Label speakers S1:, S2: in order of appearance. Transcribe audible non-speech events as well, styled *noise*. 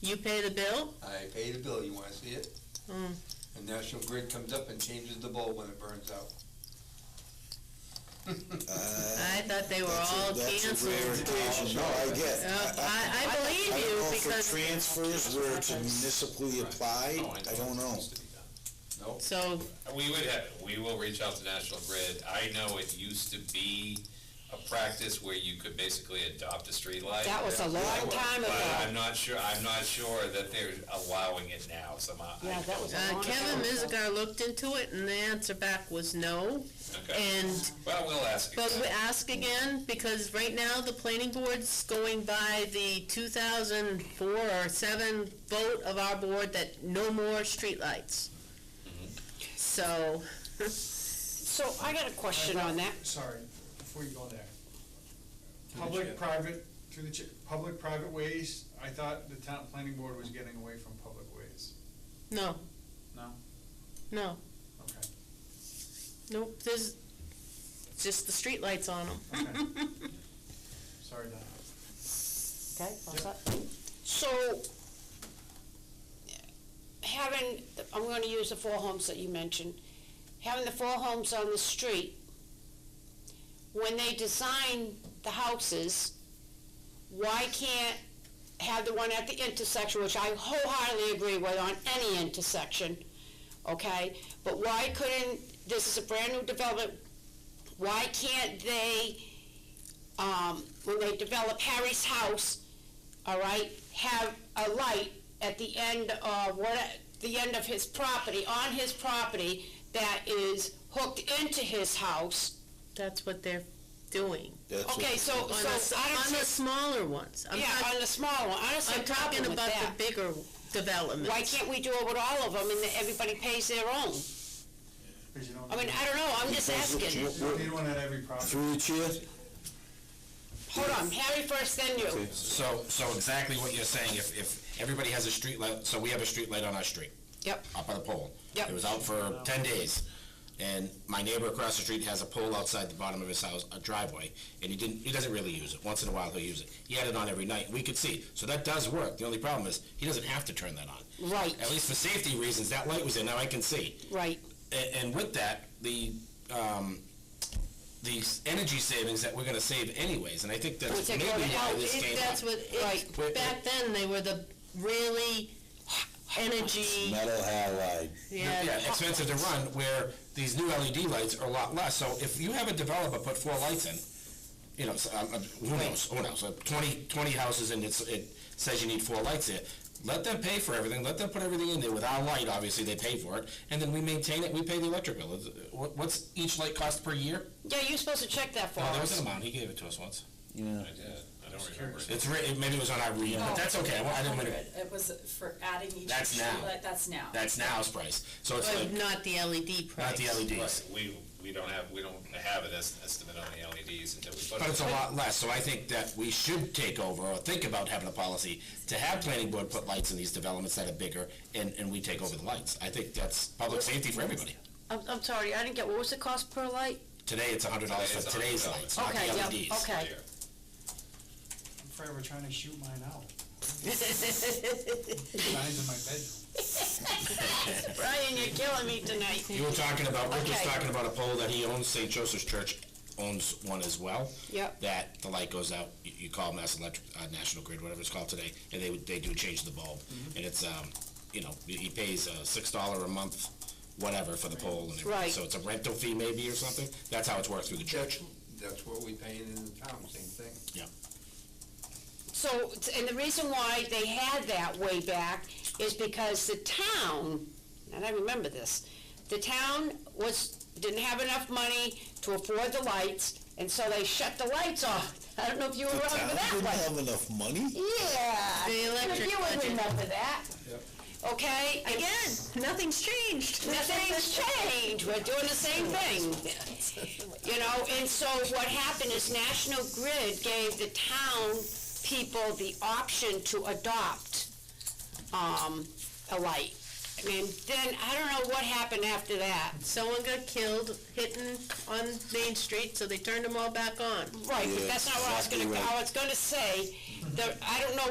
S1: You pay the bill?
S2: I pay the bill, you wanna see it?
S1: Mm.
S2: And National Grid comes up and changes the bulb when it burns out.
S1: I thought they were
S3: That's a-
S1: all
S3: that's a rare
S1: canceled.
S3: occasion. No, I get.
S1: Uh, I, I believe
S3: I
S1: you
S3: don't know if the
S1: because,
S3: transfers were to municipally applied,
S4: Oh,
S3: I don't know.
S4: Needs to be done.
S2: Nope,
S1: so, uh,
S4: We would have, we will reach out to National Grid. I know it used to be a practice where you could basically adopt a streetlight.
S5: That was a long time
S4: But I'm
S5: ago.
S4: not sure, I'm not sure that they're allowing it now somehow. I
S5: Yeah, that was a
S1: uh,
S5: long
S1: Kevin
S5: time ago.
S1: Mizigar looked into it and the answer back was no.
S4: Okay.
S1: And,
S4: Well, we'll ask
S1: but we
S4: again.
S1: ask again because right now the planning board's going by the two thousand four or seven vote of our board that no more streetlights.
S4: Mm-hmm.
S1: So,
S5: So I got a question on that.
S6: Sorry, before you go there. Public, private, through the, chair- public, private ways, I thought the town planning board was getting away from public ways.
S1: no,
S6: No?
S1: no,
S6: Okay.
S1: nope, there's just the streetlights on them.
S6: Okay. Sorry, Don.
S5: Okay, all set. So, having, the- I'm gonna use the four homes that you mentioned, having the four homes on the street, when they design the houses, why can't have the one at the intersection, which I wholeheartedly agree with on any intersection, okay? But why couldn't, this is a brand-new development, why can't they um, when they develop Harry's house, all right, have a light at the end of what, the end of his property, on his property, that is hooked into his house.
S1: *laughs* That's what they're doing.
S3: That's what-
S5: Okay, so,
S1: On the, s-
S5: so I don't
S1: on the
S5: see,
S1: smaller ones. I'm
S5: yeah,
S1: talk-
S5: on the small one, I don't see a
S1: I'm talking
S5: problem with
S1: about
S5: that.
S1: the bigger developments.
S5: Why can't we do it with all of them and that everybody pays their own?
S6: Because you don't,
S5: I mean, I don't know, I'm just
S3: Because we're-
S5: asking.
S6: you don't need one at every property.
S3: Through the chair,
S5: Hold on, Harry first, then you.
S7: So, so exactly what you're saying, if, if everybody has a street light, so we have a street light on our street,
S5: Yep,
S7: up on a pole.
S5: Yep.
S7: It was out for ten days, and my neighbor across the street has a pole outside the bottom of his house, a driveway, and he didn't, he doesn't really use it, once in a while he'll use it. He had it on every night, we could see, so that does work, the only problem is, he doesn't have to turn that on.
S5: Right.
S7: At least for safety reasons, that light was in, now I can see.
S5: right.
S7: And, and with that, the, um, the s- energy savings that we're gonna save anyways, and I think
S5: Which
S7: that's
S5: they're
S7: maybe
S5: going
S7: why
S5: out,
S7: this
S1: It-
S7: came up.
S1: That's what, it-
S5: Right.
S7: Wait,
S1: back then, they were the really energy,
S3: metal halide.
S1: yeah,
S7: yeah, expensive to run, where these new LED lights are a lot less. So if you have a developer put four lights in, you know, so, um, um, who knows, who knows, uh, 20, 20 houses and it's, it says you need four lights there. Let them pay for everything, let them put everything in there with our light, obviously, they pay for it, and then we maintain it, we pay the electric bill. It's- uh, what- What's each light cost per year?
S5: Yeah, you're supposed to check that for
S7: No, there was
S5: us.
S7: an amount, he gave it to us once.
S4: I did, I don't remember.
S7: It's, writ- maybe it was on our read, but that's okay, I wa- I didn't want to,
S8: It was for adding each.
S7: That's now.
S8: streetlight, That's now.
S7: that's now's price. So it's
S1: but
S7: like,
S1: not the LED
S7: not
S1: price.
S7: the E LEDs.
S4: Right, We, we don't have, we don't have an es- estimate on the LEDs until we put
S7: But it's
S4: it.
S7: a lot less, so I think that we should take over or think about having a policy to have planning board put lights in these developments that are bigger and, and we take over the lights. I think that's public safety for everybody.
S5: I'm, I'm sorry, I didn't get, what was the cost per light?
S7: Today, it's a hundred dollars
S4: Today, it's
S7: for today's
S4: $100.
S7: lights, not the E
S5: Okay,
S7: LEDs.
S5: yeah, okay.
S4: Yeah.
S6: I'm forever trying to shoot mine
S5: *laughs*
S6: out. Mine's in my bedroom.
S5: Brian, you're killing me tonight.
S1: *laughs*
S7: You were talking about, Rick was
S5: Okay.
S7: talking about a pole that he owns, St. Joseph's Church owns one as well.
S5: Yep.
S7: That the light goes out, you, you call Mass Electric, uh, National Grid, whatever it's called today, and they, would- they do change the bulb. And it's, um, you know, he- he pays a six dollar a month, whatever, for the pole and everything.
S5: Right.
S7: So it's a rental fee maybe or something, that's how it's worked through the church.
S2: that's what we paying in the town, same thing.
S7: Yeah.
S5: So, and the reason why they had that way back is because the town, and I remember this, the town was, didn't have enough money to afford the lights, and so they shut the lights off. *laughs* I don't know if you were
S3: The
S5: around for
S3: town
S5: that
S3: didn't
S5: one.
S3: have enough money?
S5: Yeah.
S1: The electric
S5: You would
S1: budget.
S5: remember that. Okay? and
S1: Again, nothing's changed.
S5: Nothing's changed, we're doing the same *laughs* thing. You know, and so what happened is National Grid gave the town people the option to adopt, um, a light. And then, I don't know what happened after that.
S1: Someone got killed hitting on Main Street, so they turned them all back on.
S5: Right, but
S3: Yeah,
S5: that's not what I was
S3: exactly
S5: gonna,
S3: right.
S5: I was gonna say, the, I don't know